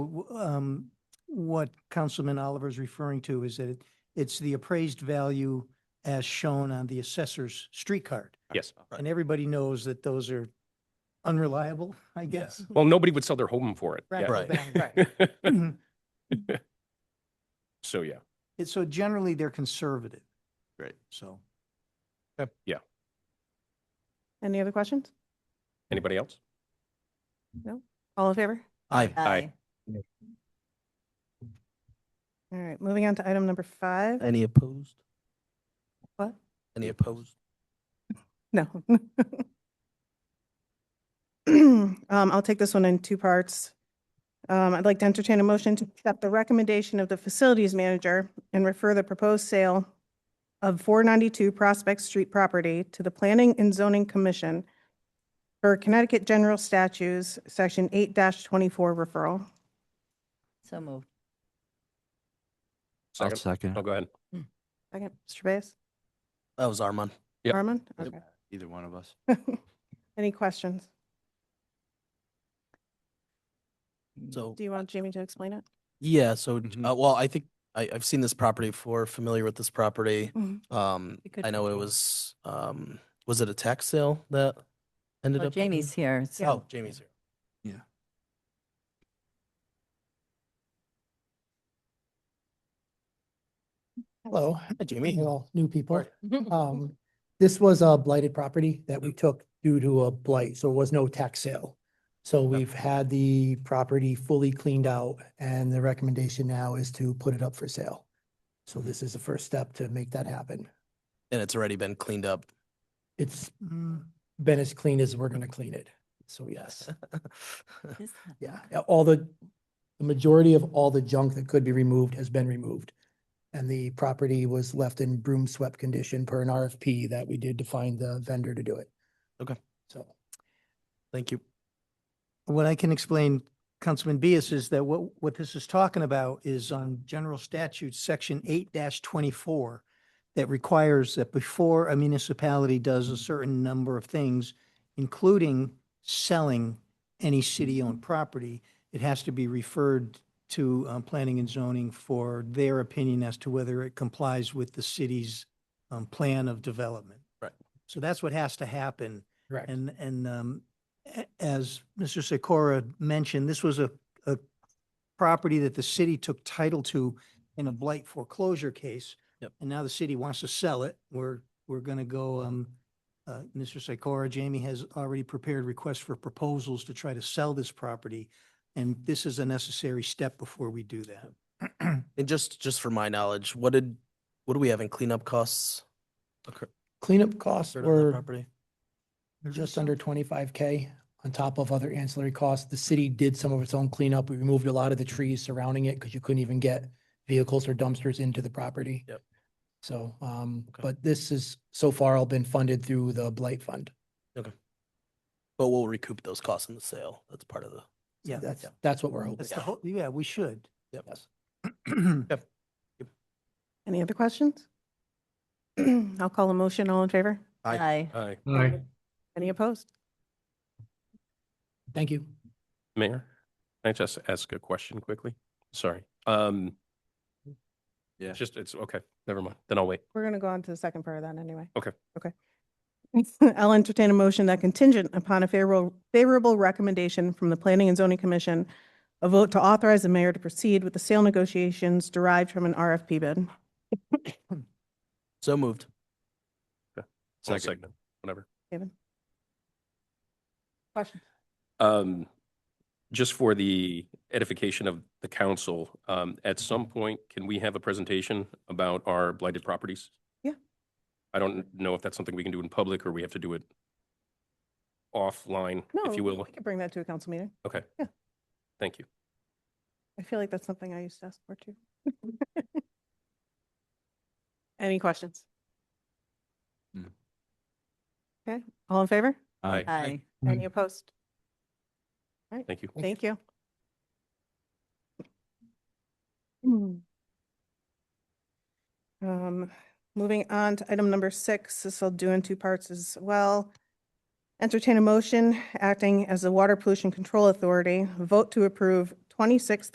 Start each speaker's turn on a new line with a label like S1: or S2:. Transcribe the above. S1: w- um, what Councilman Oliver is referring to is that it- it's the appraised value as shown on the assessor's street card.
S2: Yes.
S1: And everybody knows that those are unreliable, I guess.
S2: Mm-hmm. Well, nobody would sell their home for it.
S1: Right. Right.
S2: Yeah.
S1: Mhm.
S2: So, yeah.
S1: It's- So generally, they're conservative.
S3: Right.
S1: So.
S4: Any other questions?
S2: Anybody else?
S4: All in favor?
S3: Aye.
S2: Aye.
S4: All right, moving on to item number five.
S3: Any opposed?
S4: What?
S3: Any opposed?
S4: No. Um, I'll take this one in two parts. Um, I'd like to entertain a motion to accept the recommendation of the facilities manager and refer the proposed sale of four ninety-two Prospect Street property to the Planning and Zoning Commission for Connecticut General Statutes, Section eight twenty-four referral.
S5: So moved.
S2: Second?
S6: second.
S2: Oh, go ahead.
S4: Second, Mr. Bayes?
S3: That was Armand.
S2: Yep.
S4: Armand?
S3: Yep.
S4: Okay.
S6: Either one of us.
S4: Any questions?
S3: So,
S4: Do you want Jamie to explain it?
S3: yeah, so,
S6: Mhm.
S3: uh, well, I think I, I've seen this property before, familiar with this property.
S4: Mhm.
S3: Um,
S4: We could
S3: I know it
S4: control.
S3: was, um, was it a tax sale that ended
S5: Well,
S3: up? happening?
S5: Jamie's here,
S3: Oh,
S5: so
S3: Jamie's here. Hello. Hi, Jamie.
S7: all new people.
S3: Right.
S7: Um, this was a blighted property that we took due to a blight, so it was no tax sale. So we've had the property fully cleaned out and the recommendation now is to put it up for sale. So this is the first step to make that happen.
S3: And it's already been cleaned up.
S7: It's
S1: mm,
S7: been as clean as we're gonna clean it. So yes,
S5: Is that-
S7: yeah, yeah, all the, the majority of all the junk that could be removed has been removed. And the property was left in broom swept condition per an RFP that we did to find the vendor to do it.
S3: Okay.
S7: So.
S3: Thank you.
S1: What I can explain, Councilman Bias, is that what, what this is talking about is on General Statute, Section eight twenty-four, that requires that before a municipality does a certain number of things, including selling any city-owned property, it has to be referred to um, Planning and Zoning for their opinion as to whether it complies with the city's um, plan of development.
S3: Right.
S1: So that's what has to happen
S7: Correct.
S1: and, and um, a- as Mr. Sikora mentioned, this was a, a property that the city took title to in a blight foreclosure case.
S3: Yep.
S1: And now the city wants to sell it. We're, we're going to go, um, uh, Mr. Sikora, Jamie has already prepared requests for proposals to try to sell this property. And this is a necessary step before we do that.
S3: And just, just for my knowledge, what did, what do we have in cleanup costs? occur-
S7: Cleanup costs
S3: occurred on that
S7: were
S3: property?
S7: just under twenty-five K on top of other ancillary costs. The city did some of its own cleanup. We removed a lot of the trees surrounding it because you couldn't even get vehicles or dumpsters into the property.
S3: Yep.
S7: So, um,
S3: Okay.
S7: but this is so far all been funded through the Blight Fund.
S3: But we'll recoup those costs in the sale. That's part of the.
S1: Yeah,
S7: That's, that's what we're hoping.
S1: that's the whole, yeah, we should.
S3: Yep.
S4: Any other questions? I'll call a motion. All in favor?
S3: Aye.
S5: aye.
S2: Aye.
S4: Any opposed?
S7: Thank you.
S2: Mayor, can I just ask a question quickly? Sorry. Um,
S6: Yeah.
S2: Just, it's, okay, never mind. Then I'll wait.
S4: We're going to go on to the second part of that anyway.
S2: Okay.
S4: Okay. I'll entertain a motion that contingent upon a favorable, favorable recommendation from the Planning and Zoning Commission, a vote to authorize the mayor to proceed with the sale negotiations derived from an RFP bid.
S3: So moved.
S2: I'll
S6: Second.
S2: segment, whatever.
S4: Kevin? Question?
S2: Um, just for the edification of the council, um, at some point, can we have a presentation about our blighted properties?
S4: Yeah.
S2: I don't know if that's something we can do in public or we have to do it offline,
S4: No,
S2: if you will.
S4: we could bring that to a council meeting.
S2: Okay.
S4: Yeah.
S2: Thank you.
S4: I feel like that's something I used to ask for too. Any questions?
S6: No.
S4: Okay, all in favor?
S2: Aye.
S5: Aye.
S4: Any opposed?
S2: Thank you.
S4: Thank you. Hmm. Um, moving on to item number six, this I'll do in two parts as well. Entertain a motion acting as the Water Pollution Control Authority, vote to approve twenty-six